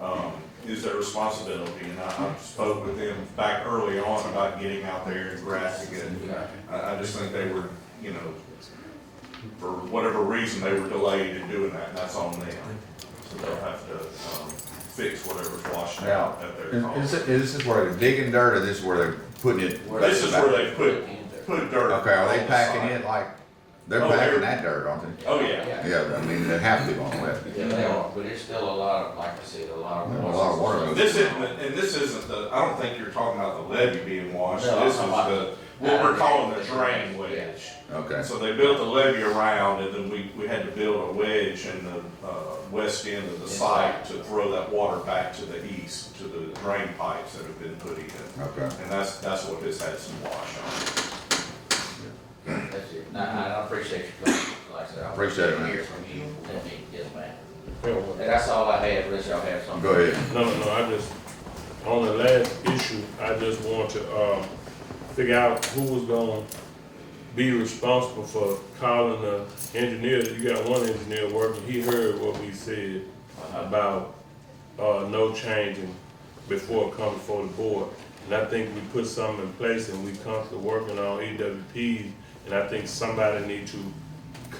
um, is their responsibility. And I I spoke with them back early on about getting out there and grassing it. I, I just think they were, you know, for whatever reason, they were delayed in doing that, and that's on them. So they'll have to, um, fix whatever's washed Now, out at their is, cost. is, is this where they're digging dirt or this is where they're putting it? This is where they put, put dirt. Okay, are they on the packing side. it like, they're Oh, packing they're- that dirt, aren't they? Oh, yeah. Yeah, I mean, they have to on that. Yeah, they are, but there's still a lot of, like I said, a lot of. Yeah, a lot of water. This isn't, and this isn't the, I don't think you're talking about the levee being washed. No, I'm This is talking the, what we're calling the drain wedge. Okay, So they built a levee around and then we, we had to build a wedge in the, uh, west end of the site to throw that water back to the east, to the drain pipes that have been put in. okay. And that's, that's what this had some wash on. That's it. Nah, I appreciate you coming, like I said. I Appreciate it, man. Hear from you, and me, yes, man. And that's all I had, unless y'all have something. Go ahead. No, no, I just, on the last issue, I just want to, um, figure out who was gonna be responsible for calling the engineer. You got one engineer working, he heard what we said about, uh, no changing before it comes before the board. And I think we put something in place and we come to working on EWPs, and I think somebody need to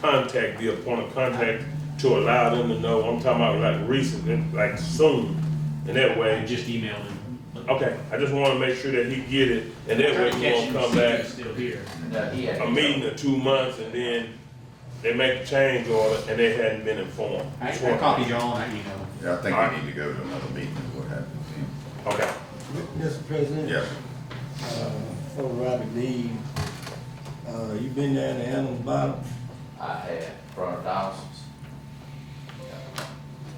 contact, be a point of contact to allow them to know, I'm talking about like recent, and like soon. And that I way, just emailed him. okay, I just wanna make sure that he get it, and that way he won't come back Still here. Now, he had. a meeting or two months, and then they make the change order, and they hadn't been informed. I, I copied y'all and I emailed. Yeah, I think we need to go to another meeting, is what happened Okay, Mr. President? Yes, Uh, For Robert Dean, uh, you been down to Animal Bottom? I had, from the Donaldson's,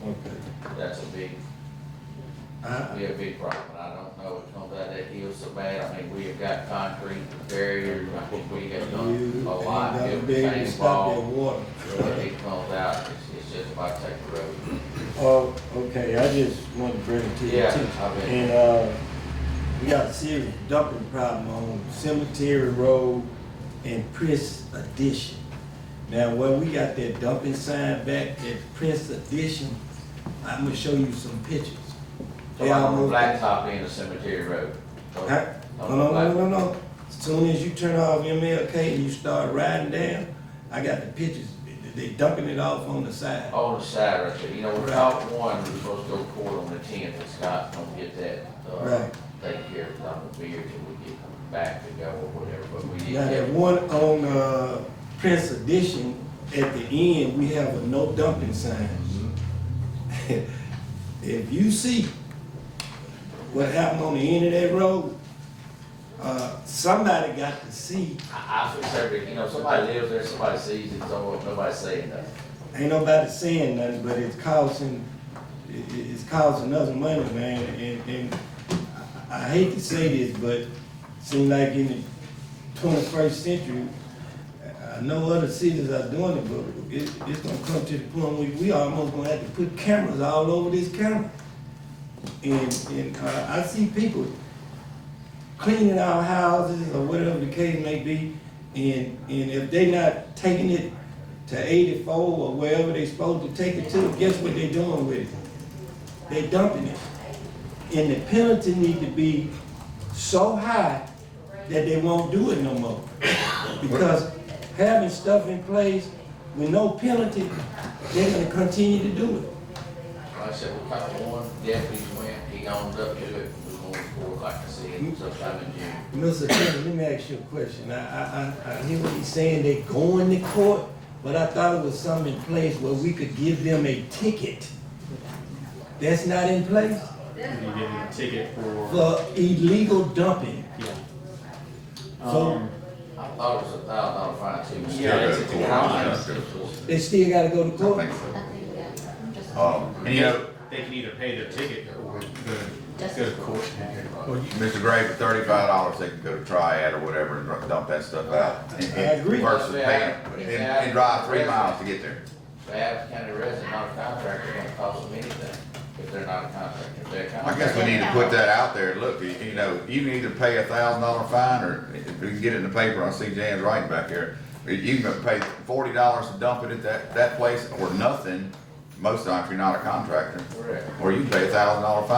Okay. that's a big, I, be a big problem, and I don't know if comes out that hill so bad, I mean, we have got concrete barriers, I think we have you done a ain't lot, gotta everything be able to stop that involved. water. When it comes out, it's, it's just about to take the road. Oh, okay, I just wanted to bring it to your Yeah, attention. I bet. And, uh, we got a serious dumping problem on Cemetery Road and Prince Addition. Now, where we got that dumping sign back at Prince Addition, I'm gonna show you some pictures. So They like on the almost- blacktop in the cemetery road. So, uh, Huh? on the No, black- no, no, no, no. Soon as you turn off MLK and you start riding down, I got the pictures. They- They dumping it off on the side. On the side right there, you know, without one, we're supposed to go court on the tenth, and Scott's gonna get that, uh, Right. take care of Dr. Beard till we get back to go or whatever, but we Now, didn't that get. one on, uh, Prince Edition, at the end, we have a no dumping sign. If you see what happened on the end of that road, uh, somebody got to see, I, I feel sorry, you know, somebody lives there, somebody sees it, so nobody's saying nothing. ain't nobody saying nothing, but it's costing, it, it- it's costing us money, man, and, and I I hate to say this, but seem like in the twenty-first century, I- I know other cities are doing it, but it, it's gonna come to the point where we almost gonna have to put cameras all over this county. And, and, uh, I see people cleaning our houses or whatever the case may be, and, and if they not taking it to eighty-four or wherever they supposed to take it to, guess what they doing with it? They dumping it. And the penalty need to be so high that they won't do it no more. Because having stuff in place with no penalty, they're gonna continue to do it. Like I said, we caught one, deputy went, he owned up to it, we moved forward, like I said, sometime in June. Mr. Attorney, let me ask you a question. I, I, I, I hear what he's saying, they going to court, but I thought it was something in place where we could give them a ticket. That's not in place You give him a ticket for, for illegal dumping. yeah. So Um, I thought it was a thousand dollar fine too. Yeah, it's a ticket. they still gotta go to I court? think so. Just- Um, any other, They can either pay their ticket or go, go to court. Mr. Gray, for thirty-five dollars, they can go to Triad or whatever and dump that stuff out. and- and I agree. Versus paying, and, and drive three miles to get there. Bath County resident, not a contractor, don't cost them anything if they're not a contractor. If they're a I guess contractor, we need to put that out there, look, you you know, you can either pay a thousand dollar fine, or if we can get it in the paper, I see Jan's writing back here. You can pay forty dollars to dump it at that, that place, or nothing, most of the time, if you're not a contractor, Correct. or you pay a thousand dollar fine